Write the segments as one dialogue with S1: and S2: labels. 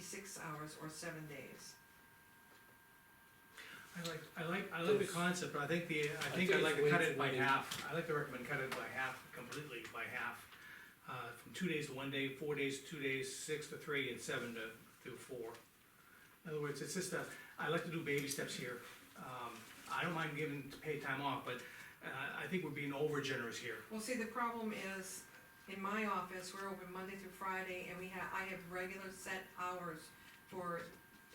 S1: six hours or seven days.
S2: I like, I like, I like the
S3: Those-
S2: concept, but I think the, I think
S3: think
S2: I'd like
S3: it's
S2: to cut
S3: way
S2: it
S3: too
S2: by
S3: many.
S2: half, I like to recommend cut it by half, completely by half. Uh, from two days to one day, four days, to two days, six to three, and seven to, to four. In other words, it's just a, I like to do baby steps here, um, I don't mind giving paid time off, but, uh, I think we're being over generous here.
S1: Well, see, the problem is, in my office, we're open Monday through Friday, and we have, I have regular set hours for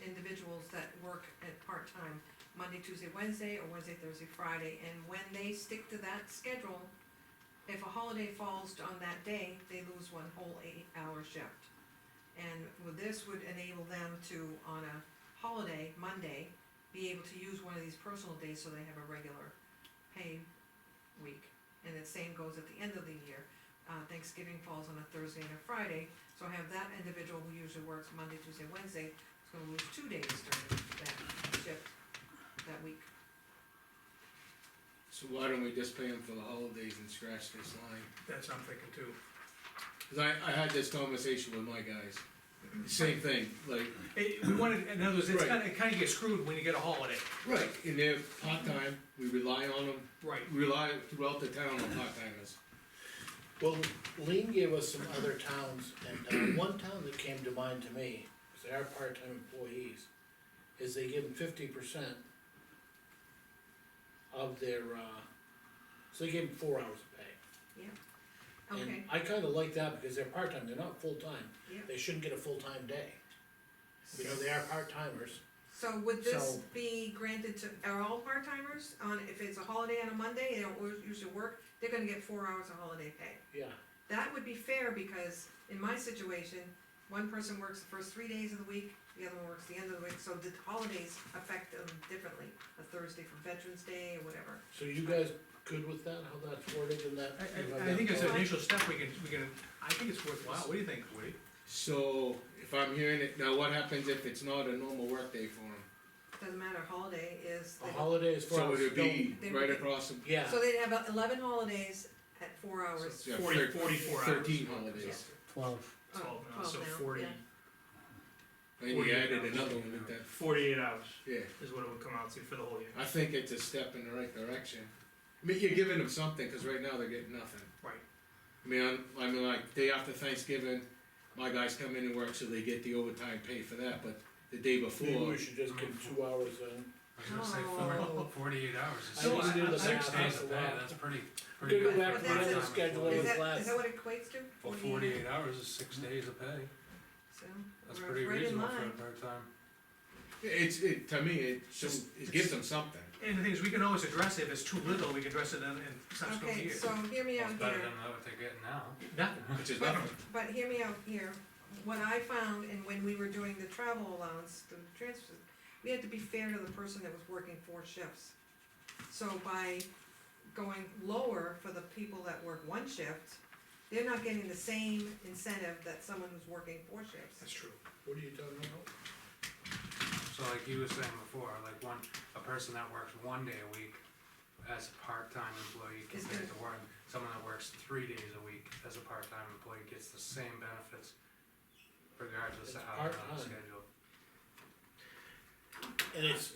S1: individuals that work at part-time, Monday, Tuesday, Wednesday, or Wednesday, Thursday, Friday, and when they stick to that schedule, if a holiday falls on that day, they lose one whole eight-hour shift. And with this would enable them to, on a holiday, Monday, be able to use one of these personal days so they have a regular pay week. And the same goes at the end of the year. Uh, Thanksgiving falls on a Thursday and a Friday, so I have that individual who usually works Monday, Tuesday, Wednesday, is gonna lose two days during that shift, that week.
S3: So why don't we just pay them for the holidays and scratch this line?
S2: That's what I'm thinking too.
S3: Cause I, I had this conversation with my guys, same thing, like,
S2: It, we wanted, in other words, it's
S3: Right.
S2: kinda, it kinda gets screwed when you get a holiday.
S3: right, and they're part-time, we rely on them,
S2: Right.
S3: rely throughout the town on part-timers.
S4: Well, Lean gave us some other towns, and uh, one town that came to mind to me, 'cause they are part-time employees, is they give them fifty percent of their, uh, so they give them four hours of pay.
S1: Okay,
S4: And I kinda like that, because they're part-time, they're not full-time,
S1: Yeah.
S4: they shouldn't get a full-time day,
S1: so,
S4: you know, they are part-timers.
S1: so would this
S4: So-
S1: be granted to, are all part-timers on, if it's a holiday on a Monday, they don't us- usually work, they're gonna get four hours of holiday pay?
S4: Yeah,
S1: That would be fair, because in my situation, one person works the first three days of the week, the other one works the end of the week, so the holidays affect them differently. A Thursday for Veterans Day or whatever.
S4: so you guys good with that, how that's worded and that?
S2: I,
S4: you
S2: I,
S4: know,
S2: I
S4: that
S2: think it's an
S4: policy?
S2: initial step, we can, we can, I think it's worthwhile, what do you think, Woody?
S3: So, if I'm hearing it, now what happens if it's not a normal workday for them?
S1: Doesn't matter, holiday is,
S4: A holiday is four
S3: So
S4: hours,
S3: it'd
S4: don't,
S3: be
S1: They would
S3: right
S1: be-
S3: across the.
S4: yeah,
S1: so they'd have eleven holidays at four hours.
S3: yeah,
S2: Forty-
S3: thir-
S2: 44 hours.
S3: Thirteen holidays,
S5: Twelve,
S1: Oh,
S6: Twelve now, so
S1: now,
S6: forty,
S1: yeah.
S3: and you
S6: 48
S3: added
S6: hours.
S3: another one with that,
S6: forty-eight hours
S3: yeah,
S6: is what it would come out to for the whole year.
S3: I think it's a step in the right direction. I mean, you're giving them something, cause right now they're getting nothing.
S2: Right.
S3: I mean, I'm- I mean, like, day after Thanksgiving, my guys come in and work, so they get the overtime pay for that, but the day
S4: maybe
S3: before,
S4: we should just give two hours then.
S7: I was gonna say four,
S1: Oh.
S7: forty-eight hours,
S4: I
S7: is
S2: No,
S4: didn't
S7: six,
S4: do the
S2: I-
S7: six
S4: math on
S7: days of
S4: the
S7: pay,
S4: law.
S7: that's pretty,
S4: We
S7: pretty
S4: could go
S7: good.
S4: back
S1: But
S7: for
S1: that's
S7: part-time
S1: a-
S4: schedule
S7: employee.
S1: Is
S4: was
S1: that,
S4: less.
S1: is that what it equates to?
S7: Well, forty-eight hours is six
S4: Mm-hmm.
S7: days of pay,
S1: So,
S7: that's
S1: we're
S7: pretty
S1: right in
S7: reasonable for a
S1: line.
S7: part-time.
S3: it's, it, to me, it just,
S2: Just-
S3: it gives them something.
S2: And the thing is, we can always address it, if it's too little, we can address it in, in subsequent
S1: Okay,
S2: years.
S1: so hear me
S7: Well,
S1: out
S7: It's
S1: here.
S7: better than what they're getting now.
S2: Nothing,
S3: Which is nothing.
S1: But hear me out here, what I found, and when we were doing the travel allowance, the transfers, we had to be fair to the person that was working four shifts. So by going lower for the people that work one shift, they're not getting the same incentive that someone who's working four shifts.
S2: that's true.
S4: What are you talking about?
S7: So like you were saying before, like one, a person that works one day a week as a part-time employee
S1: Is
S7: compared
S1: good.
S7: to one, someone that works three days a week as a part-time employee gets the same benefits
S4: It's
S7: regardless of how they're on
S4: part-time.
S7: the schedule.
S4: And it's,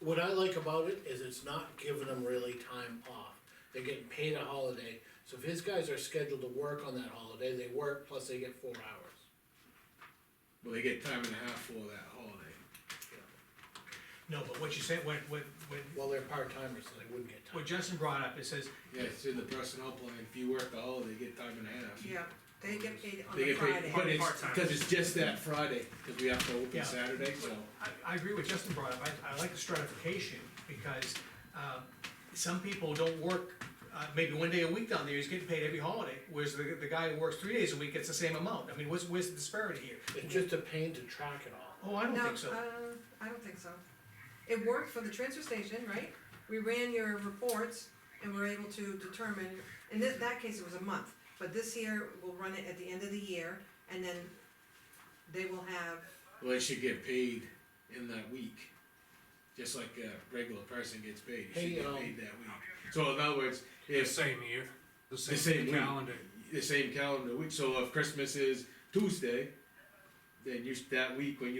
S4: what I like about it is it's not giving them really time off. They're getting paid a holiday, so if his guys are scheduled to work on that holiday, they work, plus they get four hours.
S3: Well, they get time and a half for that holiday.
S2: No, but what you said, what, what, what,
S4: Well, they're part-timers, so they wouldn't get time.
S2: what Justin brought up, it says,
S3: Yeah, it's in the personnel plan, if you work the holiday, you get time and a half.
S1: Yeah, they get paid on
S3: They
S1: a
S3: get paid,
S1: Friday.
S3: but it's,
S6: Part-time.
S3: cause it's just that Friday, cause we have to open
S2: Yeah.
S3: Saturday, so.
S2: I, I agree with Justin brought up, I, I like the stratification, because, uh, some people don't work, uh, maybe one day a week down there, he's getting paid every holiday, whereas the, the guy who works three days a week gets the same amount, I mean, what's, where's the disparity here?
S4: It's just a pain to track it all.
S2: Oh, I don't
S1: No,
S2: think so.
S1: uh, I don't think so. It worked for the transfer station, right? We ran your reports and were able to determine, in that, that case, it was a month, but this year, we'll run it at the end of the year, and then they will have,
S3: Well, they should get paid in that week, just like a regular person gets paid, you
S4: Hey,
S3: should get
S4: um,
S3: paid that week. So in other words,
S7: The
S3: if
S7: same year, the
S3: same
S7: same
S3: week.
S7: calendar.
S3: the same calendar week, so if Christmas is Tuesday, then you, that week when you